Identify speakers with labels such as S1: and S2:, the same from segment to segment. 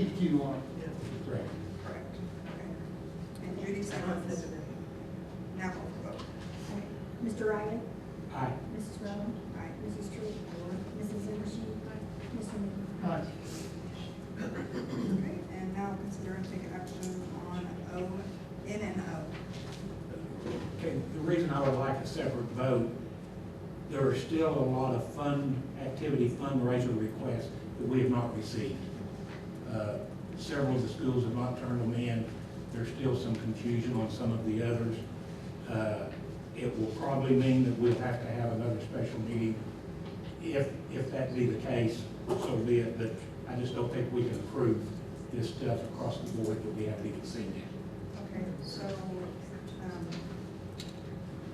S1: DQ on
S2: Correct.
S3: Correct. Okay. And Judy seconds. Now call for vote.
S4: Mr. Riley?
S2: Aye.
S4: Mrs. Rowland?
S3: Aye.
S4: Mrs. Tree? Mrs. Zimmershed? Mr. Moon?
S1: it. Aye.
S3: Okay, and now consider and take action on O, N and O.
S2: Okay, the reason I would like a separate vote, there are still a lot of fund activity fundraiser requests that we have not received. Uh, Several of the schools have not turned them in. There's still some confusion on some of the others. Uh, It will probably mean that we'll have to have another special meeting. If, if that be the case, so be it, but I just don't think we can approve this stuff across the board that we haven't even seen yet.
S3: Okay, so, um,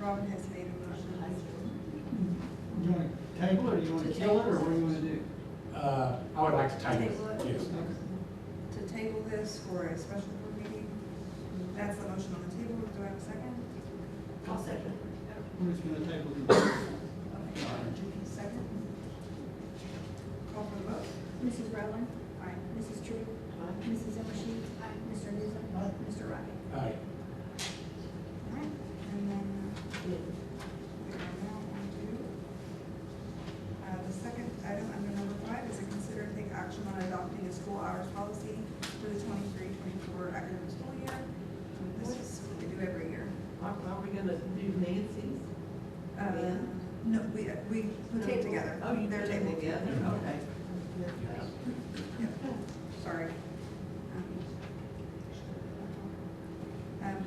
S3: Robin has made a motion.
S1: You want to table it, or you want to kill it, or what do you want to do?
S2: Uh, I would like to table
S3: Table it?
S2: it, yes.
S3: To table this for a special board meeting. That's the motion on the table. Do I have a second?
S1: We're just going to table it.
S3: Okay, Judy second. Call for the vote.
S4: Mrs. Rowland?
S3: Aye.
S4: Mrs. Tree? Mrs. Zimmershed? Mr. Newsom? Mr. Riley?
S2: Aye.
S3: Alright, and then uh, we are now on to, uh, the second item under number five is to consider and take action on adopting a school hours policy for the 23-24 academic school year. And This is what we do every year.
S5: Are, are we gonna do Nancy's?
S3: Uh,
S5: Oh, Yeah.
S3: No, we, we put them together.
S5: Oh, you
S3: They're
S5: did
S3: tabled.
S5: it together, okay.
S3: Sorry. Um,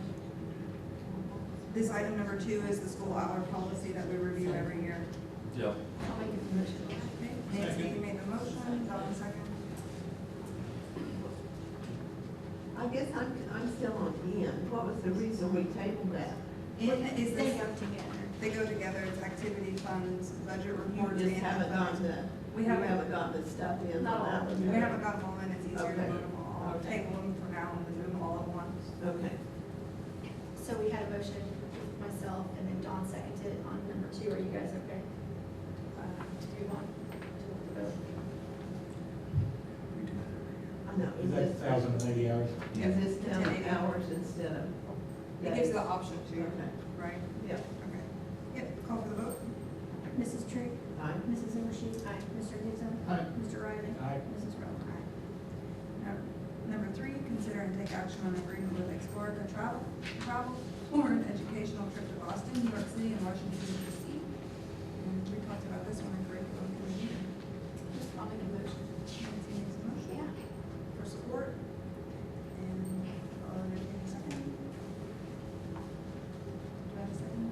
S3: This item number two is the school hour policy that we review every year.
S6: Yeah.
S3: Okay, Nancy, you made the motion, Donna second.
S5: I guess I'm, I'm still on N. What was the reason we tabled that?
S3: N is
S4: They
S3: this,
S4: go together.
S3: they go together, it's activity funds, budget
S5: You
S3: reports.
S5: just
S3: and
S5: haven't gotten
S3: funds.
S5: the,
S3: We
S5: we
S3: haven't-
S5: haven't gotten the stuff in
S4: Not
S5: on that
S4: all.
S5: one.
S3: We haven't got them all in, it's easier to
S5: Okay.
S3: vote them all,
S5: Okay.
S3: table them for now and then do them all at once.
S5: Okay,
S7: So we had a motion, myself, and then Don seconded it on number two. Are you guys okay? Uh, Do you want to vote?
S5: I know,
S2: Is
S5: is
S2: that
S5: this,
S2: thousand and eighty hours?
S5: is this down
S3: Ten eighty.
S5: to hours instead of?
S3: It gives the option
S5: Okay,
S3: to, right?
S5: yeah,
S3: Okay. Yep, call for the vote.
S4: Mrs. Tree?
S5: I,
S4: Mrs. Zimmershed? Mr. Newsom?
S1: Aye.
S4: Mr. Riley?
S2: Aye.
S4: Mrs. Rowland?
S3: Num- Number three, consider and take action on agreement with Explorica Travel, travel for an educational trip to Boston, New York City, and Washington DC. And we talked about this one in curriculum committee.
S7: Just I'll make a motion.
S3: Nancy makes a motion for support. And uh, I'll entertain a second. Do I have a second?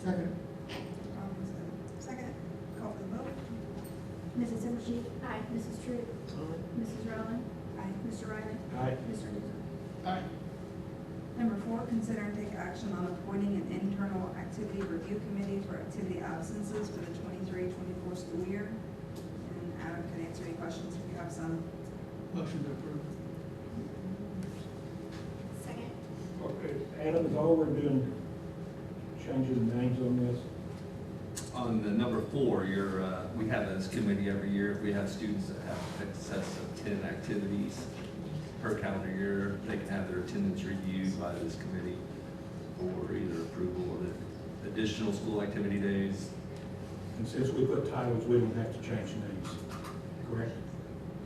S1: Second.
S3: Robin's a Second, call for the vote.
S4: Mrs. Zimmershed?
S7: Aye.
S4: Mrs. Tree? Mrs. Rowland?
S3: Aye.
S4: Mr. Riley?
S2: Aye.
S4: Mr. Newsom?
S1: Aye.
S3: Number four, consider and take action on appointing an internal activity review committee for activity absences for the 23-24 school year. And Adam can answer any questions if you have some.
S1: Motion to approve.
S7: Second.
S2: Okay. uh, Adam, is all we're doing changing the names on this?
S6: On the number four, you're, uh, we have this committee every year. We have students that have excess of ten activities per calendar year. They can have their attendance reviewed by this committee for either approval of the additional school activity days.
S2: And since we put titles, we don't have to change names, correct?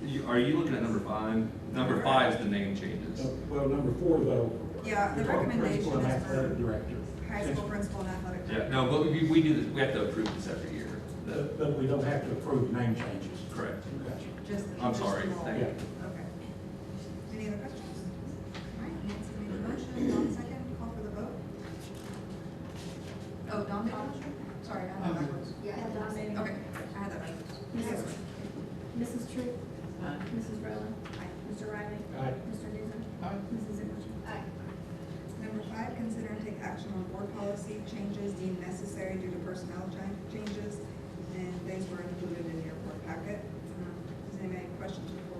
S6: You- Are you looking at number five? Number five is the name changes.
S2: No, Well, number four, though.
S3: Yeah, the
S2: you're talking principal
S3: recommendation
S2: and
S3: is for
S2: athletic Director.
S3: High school principal and athletic.
S6: Yeah, no, but we, we do this, we have to approve this every year. The-
S2: But, but we don't have to approve name changes.
S6: Correct.
S2: Gotcha.
S3: Just the
S6: I'm sorry,
S3: additional-
S6: thank
S2: you.
S3: Okay. Any other questions? All right, Nancy made a motion, Dawn second, call for the vote. Oh, Dawn made a motion? Sorry, I had that backwards.
S7: Yeah, Don made it.
S3: Okay, I had that backwards. Yes.
S4: Mrs. Tree?
S5: I,
S4: Mrs. Rowland?
S3: Aye.
S4: Mr. Riley?
S2: Aye.
S4: Mr. Newsom?
S1: Aye.
S4: Mrs. Zimmershed?
S7: Aye.
S3: Number five, consider and take action on board policy changes deemed necessary due to personnel cha- changes, and these were included in your board packet. Um, Does anybody have any questions before